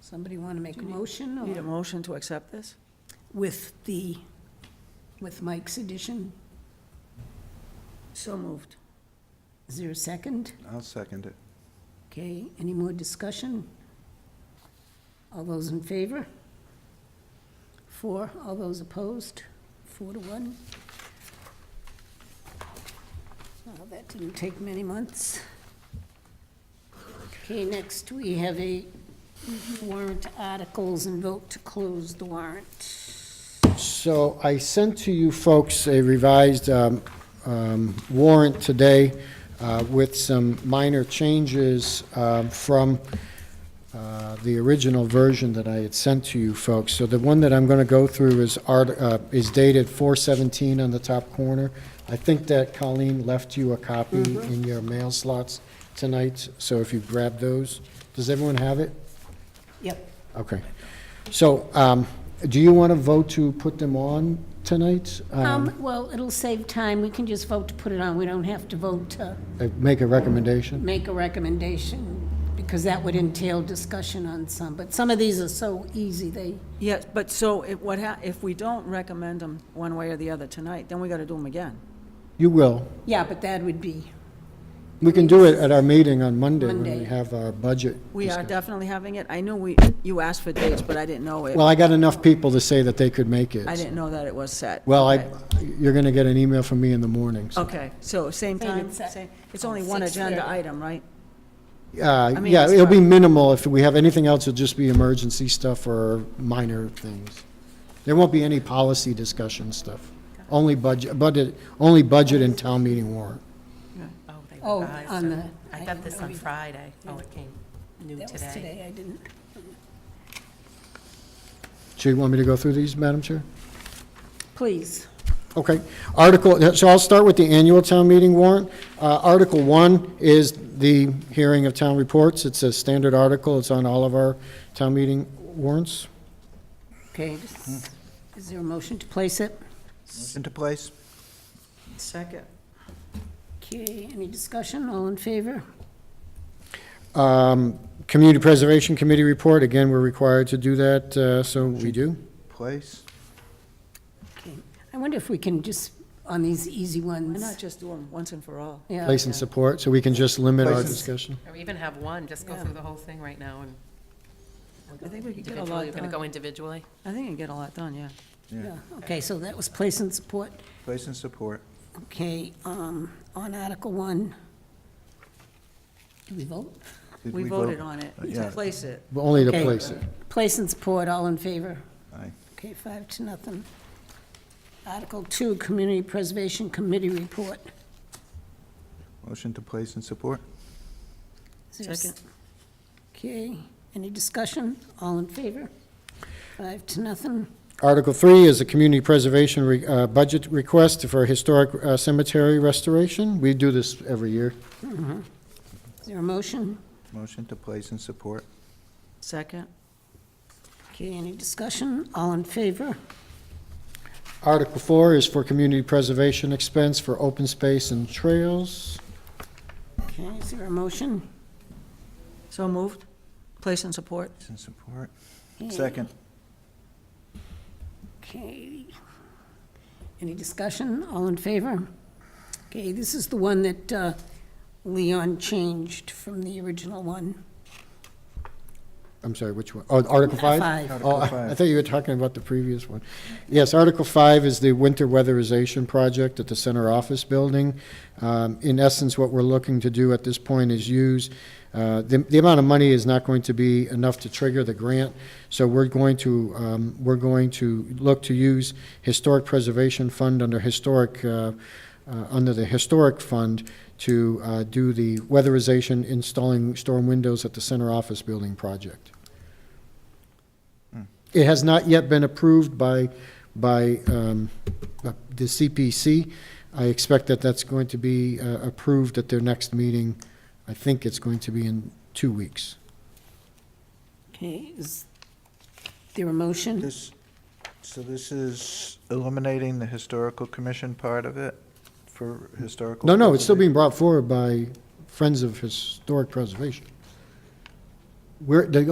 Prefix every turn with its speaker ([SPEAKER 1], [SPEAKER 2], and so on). [SPEAKER 1] Somebody want to make a motion
[SPEAKER 2] Need a
[SPEAKER 1] or
[SPEAKER 2] motion to accept this?
[SPEAKER 1] with the, with Mike's addition?
[SPEAKER 2] So moved.
[SPEAKER 1] Is there a second?
[SPEAKER 3] I'll second it.
[SPEAKER 1] Okay, any more discussion? All those in favor? Four, all those opposed? Four to one? Well, that didn't take many months. Okay, next we have a warrant articles and vote to close the warrant.
[SPEAKER 4] So I sent to you folks a revised um, um, warrant today uh, with some minor changes um, from uh, the original version that I had sent to you folks. So the one that I'm going to go through is art- uh, is dated 417 on the top corner. I think that Colleen left you a copy in your mail slots tonight, so if you grab those. Does everyone have it?
[SPEAKER 1] Yep.
[SPEAKER 4] Okay. So, um, do you want to vote to put them on tonight? Um,
[SPEAKER 1] Um, well, it'll save time. We can just vote to put it on. We don't have to vote to
[SPEAKER 4] uh, Make a recommendation?
[SPEAKER 1] make a recommendation, because that would entail discussion on some, but some of these are so easy, they,
[SPEAKER 2] Yes, but so if, what hap, if we don't recommend them one way or the other tonight, then we gotta do them again.
[SPEAKER 4] You will.
[SPEAKER 1] yeah, but that would be,
[SPEAKER 4] We can do it at our meeting on Monday when
[SPEAKER 1] Monday.
[SPEAKER 4] we have our budget.
[SPEAKER 2] We are
[SPEAKER 4] discuss-
[SPEAKER 2] definitely having it. I knew we, you asked for dates, but I didn't know it.
[SPEAKER 4] Well, I got enough people to say that they could make it.
[SPEAKER 2] I didn't know that it was set.
[SPEAKER 4] Well, I,
[SPEAKER 2] Okay.
[SPEAKER 4] you're going to get an email from me in the morning, so.
[SPEAKER 2] Okay, so same Oh,
[SPEAKER 1] Same,
[SPEAKER 2] time,
[SPEAKER 1] it's at
[SPEAKER 2] same, it's only one
[SPEAKER 1] 6:30.
[SPEAKER 2] agenda item, right?
[SPEAKER 4] Uh,
[SPEAKER 2] mean,
[SPEAKER 4] yeah,
[SPEAKER 2] it's
[SPEAKER 4] it'll be
[SPEAKER 2] fine.
[SPEAKER 4] minimal. If we have anything else, it'll just be emergency stuff or minor things. There won't be any policy discussion stuff. Only budget, budget, only budget and town meeting warrant.
[SPEAKER 5] Oh, they
[SPEAKER 1] oh,
[SPEAKER 5] revised
[SPEAKER 1] on the.
[SPEAKER 5] them. I got this on Friday. Oh, it came new
[SPEAKER 1] That was
[SPEAKER 5] today.
[SPEAKER 1] today, I didn't.
[SPEAKER 4] So you want me to go through these, Madam Chair?
[SPEAKER 1] Please,
[SPEAKER 4] Okay. Article, so I'll start with the annual town meeting warrant. Uh, Article one is the hearing of town reports. It's a standard article. It's on all of our town meeting warrants.
[SPEAKER 1] okay, just- Hmm. is there a motion to place it?
[SPEAKER 3] Into place?
[SPEAKER 2] Second.
[SPEAKER 1] Okay, any discussion, all in favor?
[SPEAKER 4] Um, Community Preservation Committee report, again, we're required to do that, uh, so we do.
[SPEAKER 3] Place?
[SPEAKER 1] Okay, I wonder if we can just, on these easy
[SPEAKER 2] Why
[SPEAKER 1] ones.
[SPEAKER 2] not just do them once and for all?
[SPEAKER 1] Oh, Yeah.
[SPEAKER 4] Place and support, so we can just limit our
[SPEAKER 3] Place and-
[SPEAKER 4] discussion.
[SPEAKER 5] Or even have one, just go
[SPEAKER 2] Yeah.
[SPEAKER 5] through the whole thing right now and.
[SPEAKER 2] I think we could get a
[SPEAKER 5] Individually,
[SPEAKER 2] lot
[SPEAKER 5] you're gonna
[SPEAKER 2] done.
[SPEAKER 5] go individually?
[SPEAKER 2] I think you can get a lot done, yeah.
[SPEAKER 1] Yeah, Okay, so that was place and support.
[SPEAKER 3] Place and support.
[SPEAKER 1] Okay, um, on Article One. Do we vote?
[SPEAKER 3] Did
[SPEAKER 2] We
[SPEAKER 3] vote?
[SPEAKER 2] voted on it, to
[SPEAKER 3] Yeah.
[SPEAKER 2] place it.
[SPEAKER 4] But Only to
[SPEAKER 1] Okay.
[SPEAKER 4] place it.
[SPEAKER 1] Place and support, all in favor?
[SPEAKER 3] Aye.
[SPEAKER 1] Okay, five to nothing. Article two, Community Preservation Committee report.
[SPEAKER 3] Motion to place and support?
[SPEAKER 1] Is there a s-
[SPEAKER 2] Second.
[SPEAKER 1] Okay, any discussion? All in favor? Five to nothing.
[SPEAKER 4] Article three is a community preservation re- uh, budget request for historic uh, cemetery restoration. We do this every year.
[SPEAKER 1] Is there a motion?
[SPEAKER 3] Motion to place and support?
[SPEAKER 2] Second,
[SPEAKER 1] Okay, any discussion? All in favor?
[SPEAKER 4] Article four is for community preservation expense for open space and trails.
[SPEAKER 1] Okay, is there a motion?
[SPEAKER 2] so moved, place and support.
[SPEAKER 3] Place and support?
[SPEAKER 1] Okay,
[SPEAKER 3] Second.
[SPEAKER 1] Okay. Any discussion? All in favor? Okay, this is the one that uh, Leon changed from the original one.
[SPEAKER 4] I'm sorry, which one? Oh, Article five?
[SPEAKER 1] Five.
[SPEAKER 3] Article
[SPEAKER 4] Oh, I I
[SPEAKER 3] five.
[SPEAKER 4] thought you were talking about the previous one. Yes, Article five is the winter weatherization project at the center office building. Um, in essence, what we're looking to do at this point is use, uh, the, the amount of money is not going to be enough to trigger the grant. So we're going to, um, we're going to look to use historic preservation fund under historic, uh, uh, under the historic fund to, uh, do the weatherization, installing storm windows at the center office building project. It has not yet been approved by, by um, the CPC. I expect that that's going to be uh, approved at their next meeting. I think it's going to be in two weeks.
[SPEAKER 1] Okay, is there a motion?
[SPEAKER 3] This, so this is eliminating the historical commission part of it for historical?
[SPEAKER 4] No, no, it's still
[SPEAKER 3] preservation?
[SPEAKER 4] being brought forward by Friends of Historic Preservation. We're, the